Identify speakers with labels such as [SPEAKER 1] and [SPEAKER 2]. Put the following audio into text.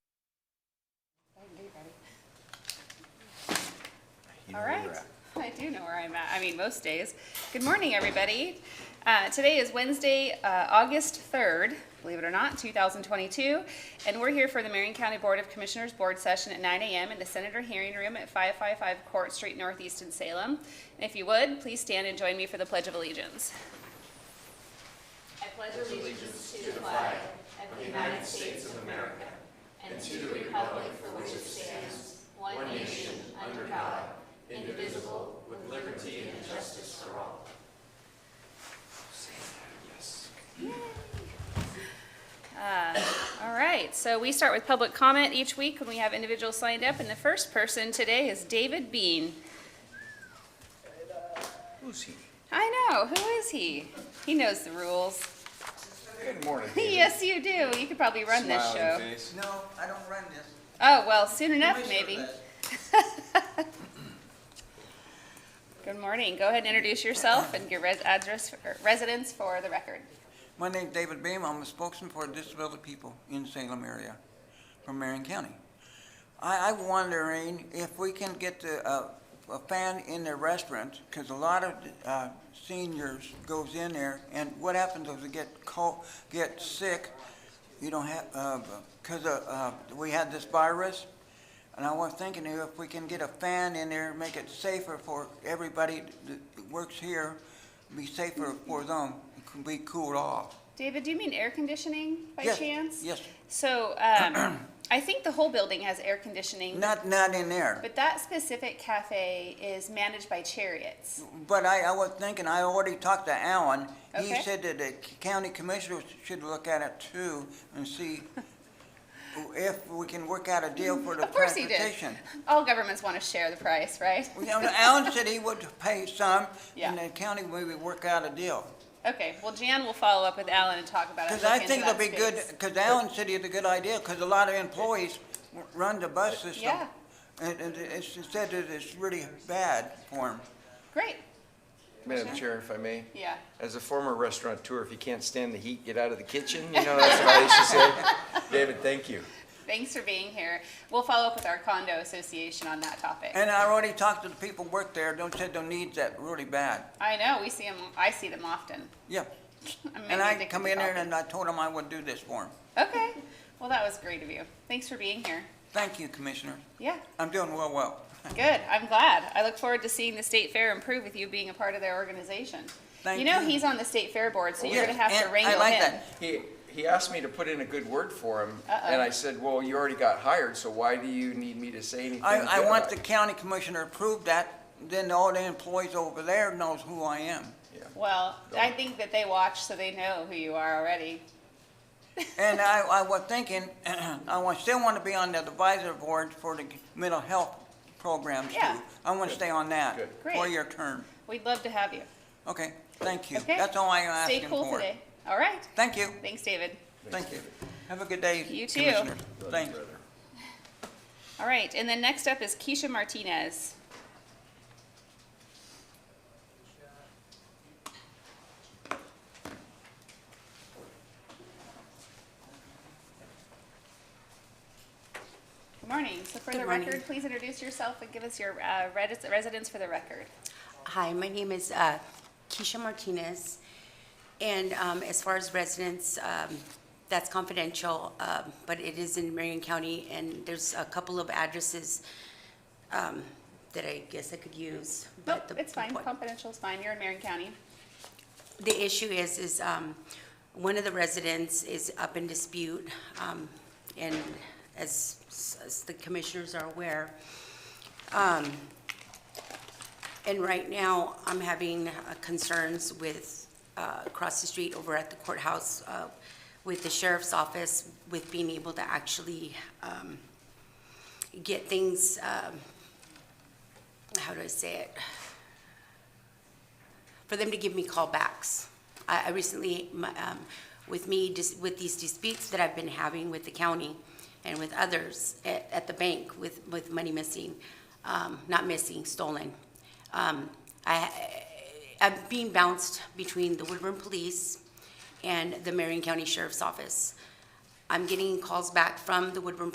[SPEAKER 1] You know
[SPEAKER 2] All
[SPEAKER 1] where
[SPEAKER 2] right,
[SPEAKER 1] you're at.
[SPEAKER 2] I do know where I'm at, I mean, most days. Good morning, everybody. Uh, Today is Wednesday, uh, August 3rd, believe it or not, 2022, and we're here for the Marion County Board of Commissioners Board Session at 9 a.m. in the Senator Hearing Room at 555 Court Street Northeast in Salem. And if you would, please stand and join me for the Pledge of Allegiance. I pledge allegiance to the flag of the United States of America and to the republic for which it stands, one nation, under God, indivisible, with liberty and justice for all. All right, so we start with public comment each week when we have individuals signed up, and the first person today is David Bean.
[SPEAKER 1] Who's he?
[SPEAKER 2] I know, who is he? He knows the rules.
[SPEAKER 1] Good morning. David.
[SPEAKER 2] Yes, you do, you could probably run this show.
[SPEAKER 3] Smiling face.
[SPEAKER 4] No, I don't run this.
[SPEAKER 2] Oh, well, soon enough,
[SPEAKER 4] Commissioner
[SPEAKER 2] maybe.
[SPEAKER 4] does.
[SPEAKER 2] Good morning. Go ahead and introduce yourself and your res- address, or residence for the record.
[SPEAKER 4] My name's David Beam. I'm a spokesman for disability people in Salem area from Marion County. I, I'm wondering if we can get the, uh, a fan in the restaurant, because a lot of, uh, seniors goes in there, and what happens is they get cold, get sick. You don't have, uh, because, uh, uh, we had this virus, and I was thinking if we can get a fan in there, make it safer for everybody that works here, be safer for them, can be cooled off.
[SPEAKER 2] David, do you mean air conditioning by
[SPEAKER 4] Yes,
[SPEAKER 2] chance?
[SPEAKER 4] Yes,
[SPEAKER 2] So um, I think the whole building has air conditioning,
[SPEAKER 4] not, not in there.
[SPEAKER 2] but that specific cafe is managed by Chariots.
[SPEAKER 4] But I, I was thinking, I already talked to Alan. He
[SPEAKER 2] Okay.
[SPEAKER 4] said that the county commissioners should look at it too and see if we can work out a deal for the
[SPEAKER 2] Of course he did.
[SPEAKER 4] transportation.
[SPEAKER 2] All governments want to share the price, right?
[SPEAKER 4] You know, Alan said he would pay some
[SPEAKER 2] Yeah.
[SPEAKER 4] and the county maybe work out a deal.
[SPEAKER 2] Okay, well, Jan will follow up with Alan and talk about it.
[SPEAKER 4] Because
[SPEAKER 2] look
[SPEAKER 4] I
[SPEAKER 2] into
[SPEAKER 4] think it'll
[SPEAKER 2] that
[SPEAKER 4] be good,
[SPEAKER 2] space.
[SPEAKER 4] because Allen said it's a good idea, because a lot of employees w- run the bus system.
[SPEAKER 2] Yeah.
[SPEAKER 4] And, and it's it said that it's really bad for them.
[SPEAKER 2] Great,
[SPEAKER 3] Madam Chair, if I may,
[SPEAKER 2] yeah.
[SPEAKER 3] as a former restaurateur, if you can't stand the heat, get out of the kitchen, you know, that's what I used to say. David, thank you.
[SPEAKER 2] Thanks for being here. We'll follow up with our condo association on that topic.
[SPEAKER 4] And I already talked to the people who work there, don't said they need that really bad.
[SPEAKER 2] I know, we see them, I see them often.
[SPEAKER 4] Yeah.
[SPEAKER 2] I'm
[SPEAKER 4] And
[SPEAKER 2] maybe
[SPEAKER 4] I
[SPEAKER 2] addicted
[SPEAKER 4] come
[SPEAKER 2] to
[SPEAKER 4] in there
[SPEAKER 2] coffee.
[SPEAKER 4] and I told them I would do this for them.
[SPEAKER 2] Okay, well, that was great of you. Thanks for being here.
[SPEAKER 4] Thank you, Commissioner.
[SPEAKER 2] Yeah,
[SPEAKER 4] I'm doing well, well.
[SPEAKER 2] good, I'm glad. I look forward to seeing the state fair improve with you being a part of their organization.
[SPEAKER 4] Thank
[SPEAKER 2] You know,
[SPEAKER 4] you.
[SPEAKER 2] he's on the state fair board, so you're
[SPEAKER 4] Yes,
[SPEAKER 2] gonna have
[SPEAKER 4] and
[SPEAKER 2] to
[SPEAKER 4] I
[SPEAKER 2] wrangle
[SPEAKER 4] like
[SPEAKER 2] him.
[SPEAKER 4] that.
[SPEAKER 3] He, he asked me to put in a good word for him, and
[SPEAKER 2] Uh-oh.
[SPEAKER 3] I said, well, you already got hired, so why do you need me to say anything?
[SPEAKER 4] I,
[SPEAKER 3] good
[SPEAKER 4] I want
[SPEAKER 3] about
[SPEAKER 4] the
[SPEAKER 3] it?"
[SPEAKER 4] county commissioner to approve that, then all the employees over there knows who I am.
[SPEAKER 3] Yeah.
[SPEAKER 2] Well, I think that they watch, so they know who you are already.
[SPEAKER 4] And I, I was thinking, I wa- still want to be on the advisory board for the mental health programs too.
[SPEAKER 2] Yeah.
[SPEAKER 4] I want to stay on that
[SPEAKER 3] Good.
[SPEAKER 4] for
[SPEAKER 2] Great.
[SPEAKER 4] your term.
[SPEAKER 2] We'd love to have you.
[SPEAKER 4] Okay, thank you.
[SPEAKER 2] Okay.
[SPEAKER 4] That's all I'm
[SPEAKER 2] Stay
[SPEAKER 4] asking for.
[SPEAKER 2] cool today. All right,
[SPEAKER 4] Thank you,
[SPEAKER 2] thanks, David.
[SPEAKER 4] thank you. Have a good day,
[SPEAKER 2] You too.
[SPEAKER 4] Commissioner. Thanks.
[SPEAKER 2] All right, and then next up is Keisha Martinez. Good morning. So for
[SPEAKER 5] Good
[SPEAKER 2] the
[SPEAKER 5] morning.
[SPEAKER 2] record, please introduce yourself and give us your uh, redis- residence for the record.
[SPEAKER 5] Hi, my name is uh, Keisha Martinez, and um, as far as residents, um, that's confidential, um, but it is in Marion County, and there's a couple of addresses um, that I guess I could use.
[SPEAKER 2] Nope,
[SPEAKER 5] but the-
[SPEAKER 2] Oh, it's
[SPEAKER 5] the
[SPEAKER 2] fine.
[SPEAKER 5] point-
[SPEAKER 2] Confidential is fine. You're in Marion County.
[SPEAKER 5] The issue is, is um, one of the residents is up in dispute, um, and as as the commissioners are aware, um, And right now, I'm having uh, concerns with, uh, across the street over at the courthouse, uh, with the sheriff's office, with being able to actually um, get things, um, how do I say it? For them to give me callbacks. I I recently, my, um, with me, dis- with these disputes that I've been having with the county and with others at at the bank with, with money missing, um, not missing, stolen. Um, I, I'm being bounced between the Woodburn Police and the Marion County Sheriff's Office. I'm getting calls back from the Woodburn